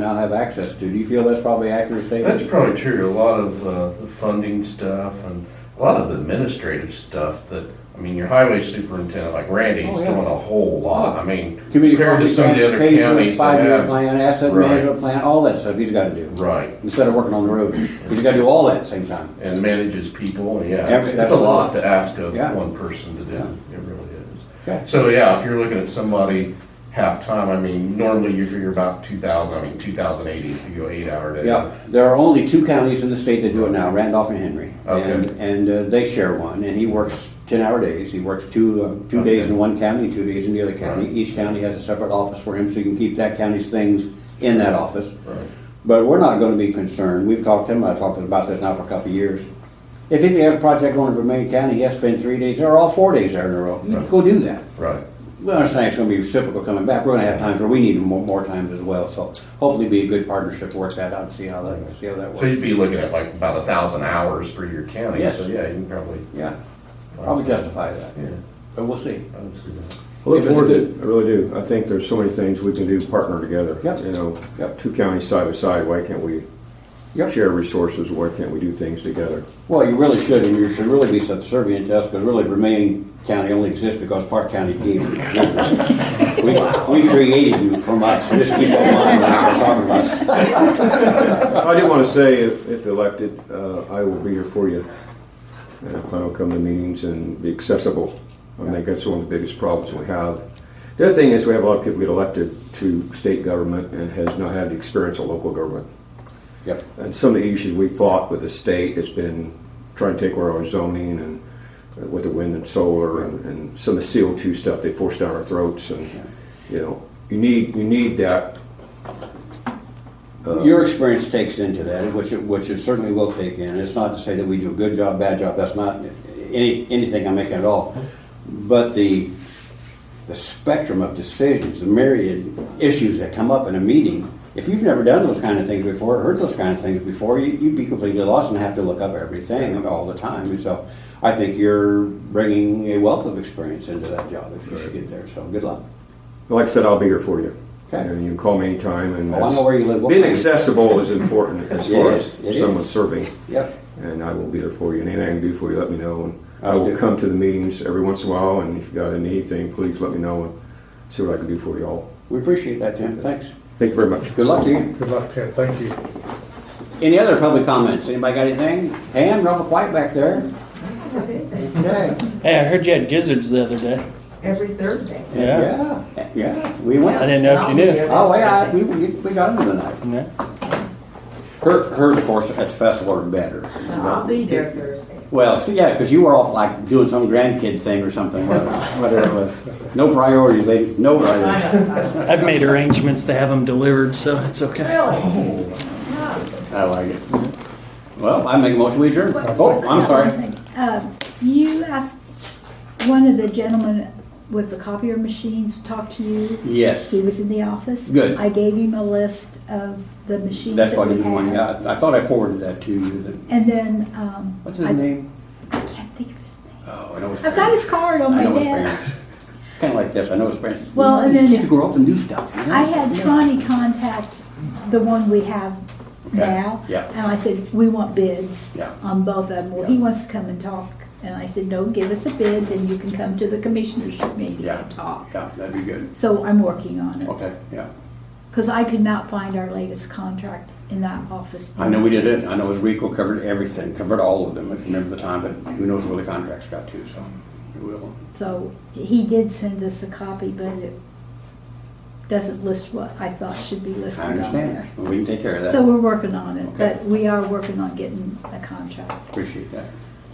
now have access to. Do you feel that's probably accurate That's statement? probably true, a lot of uh, the funding stuff and a lot of the administrative stuff that, I mean, your highway superintendent, like Randy, he's Oh, doing yeah. a whole lot, I mean, Community compared to crossing some of the other transportation, counties that five-year have. plan, asset Right. management plan, all that stuff he's gotta do, Right, instead of working on the roads, because you gotta do all that at the same time. and manages people, yeah, Every- it's it's that's a a lot lot. to ask of Yeah. one person to do, Yeah. it really Okay. is. So, yeah, if you're looking at somebody half-time, I mean, normally you figure about two thousand, I mean, two thousand eighty if you go eight-hour day. Yeah, there are only two counties in the state that do it now, Randolph and Henry. Okay. And, and uh, they share one, and he works ten-hour days. He works two, uh, two days in one county, two days in the other county. Right. Each county has a separate office for him, so you can keep that county's things in that office. Right. But we're not gonna be concerned, we've talked to him, I talked about this now for a couple of years. If he had a project going for Maine County, he has to spend three days there, or all four days there in a row. You Right. go do that. Right. We understand it's gonna be reciprocal coming back, we're gonna have times where we need more, more times as well, so hopefully be a good partnership, work that out, and see how that, see how that works. So you'd be looking at like about a thousand hours for your county, Yes. so yeah, you can probably. Yeah, find probably some- justify that, Yeah, but we'll see. I would see that. I look If it's forward to good- it, I really do. I think there's so many things we can do, partner together. Yep. You know, Yep. two counties side by side, why can't we Yep. share resources? Why can't we do things together? Well, you really should, and you should really be subservient to us, because really Remain County only exists because Park County gave it. We, we created you from us, so just keep that in mind when you start talking about it. I do want to say, if if elected, uh, I will be here for you. And if I don't come to meetings and be accessible, I think that's one of the biggest problems we have. The other thing is, we have a lot of people get elected to state government and has not had the experience of local government. Yep, And some of the issues we fought with the state has been trying to take away our zoning and uh, with the wind and solar and, and some of the CO2 stuff they forced down our throats and, you know, you need, you need that. your experience takes into that, which it, which it certainly will take in, it's not to say that we do a good job, bad job, that's not any, anything I'm making at all. But the, the spectrum of decisions, the myriad issues that come up in a meeting, if you've never done those kind of things before, heard those kind of things before, you, you'd be completely lost and have to look up everything all the time. And so I think you're bringing a wealth of experience into that job if you should get there, so good luck. Like I said, I'll be here for you. Okay. And you can call me anytime and. Oh, I know that's- where you live. Being accessible is important as It far is, it as is. someone serving. Yep, And I will be there for you. And anything I can do for you, let me know. And I That's will good. come to the meetings every once in a while and if you got anything, please let me know and see what I can do for you all. we appreciate that, Tim, thanks. Thank you very much. Good luck to you. Good luck, Ted, thank you. Any other public comments? Anybody got anything? Pam, awful quiet back there. Okay. Hey, I heard you had gizzards the other day. Every Thursday. Yeah. Yeah, yeah, we went. I didn't know if you knew. Oh, yeah, we, we we got them tonight. Yeah. Her, her, of course, at the festival are better. I'll be there Thursday. Well, see, yeah, because you were off like doing some grandkid thing or something, whatever whatever it was. No priorities, lady, no priorities. I know, I know. I've made arrangements to have them delivered, so it's okay. Really? I like it. Well, I make a motion, we adjourn. Oh, I'm sorry. Uh, You asked one of the gentlemen with the copier machines to talk to you. Yes, He was in the office. Good. I gave him a list of the machines that's that what he we was wanting. have. Yeah, I I thought I forwarded that to you. that- And then, um. What's his I- name? I can't think of his name. Oh, I know his I've got name. his card on I my know his desk. parents. Kind of like this, I know his parents. Well, You know, and These then- kids grow up and do stuff. you know? I had Connie contact the one we have Okay, now. yeah. And I said, we want bids Yeah. on both of them. Well, he wants to come and talk. And I said, no, give us a bid, then you can come to the commissioners meeting Yeah. and talk. Yeah, that'd be good. So I'm working on it. Okay, yeah. Because I could not find our latest contract in that office. I know we did it, I know his RICO covered everything, covered all of them, if you remember the time, but who knows where the contracts got to, so we will. So he did send us a copy, but it doesn't list what I thought should be listed I on understand, there. and we can take care of So that. we're working on it, Okay. but we are working on getting a contract. Appreciate that.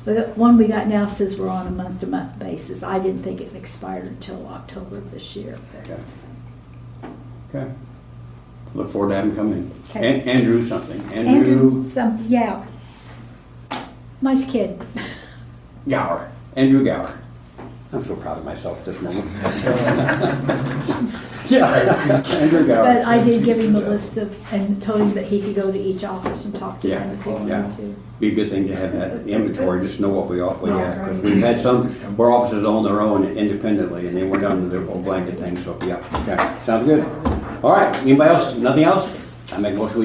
The one we got now says we're on a month-to-month basis. I didn't think it expired until October of this year. but- Okay. Okay. Look forward to having him come in. Okay. And Andrew something, Andrew Andrew, some, yeah. Nice kid. Gower, Andrew Gower. I'm so proud of myself this moment. Yeah, Andrew Gower. But I did give him a list of, and told him that he could go to each office and talk to them if he Yeah, yeah. wanted to. be a good thing to have that inventory, just know what we all, we have, because we've had some, where officers own their own independently, and they went down to their old blanket thing, so, yeah, okay, sounds good. All right, anybody else, nothing else? I make a motion, we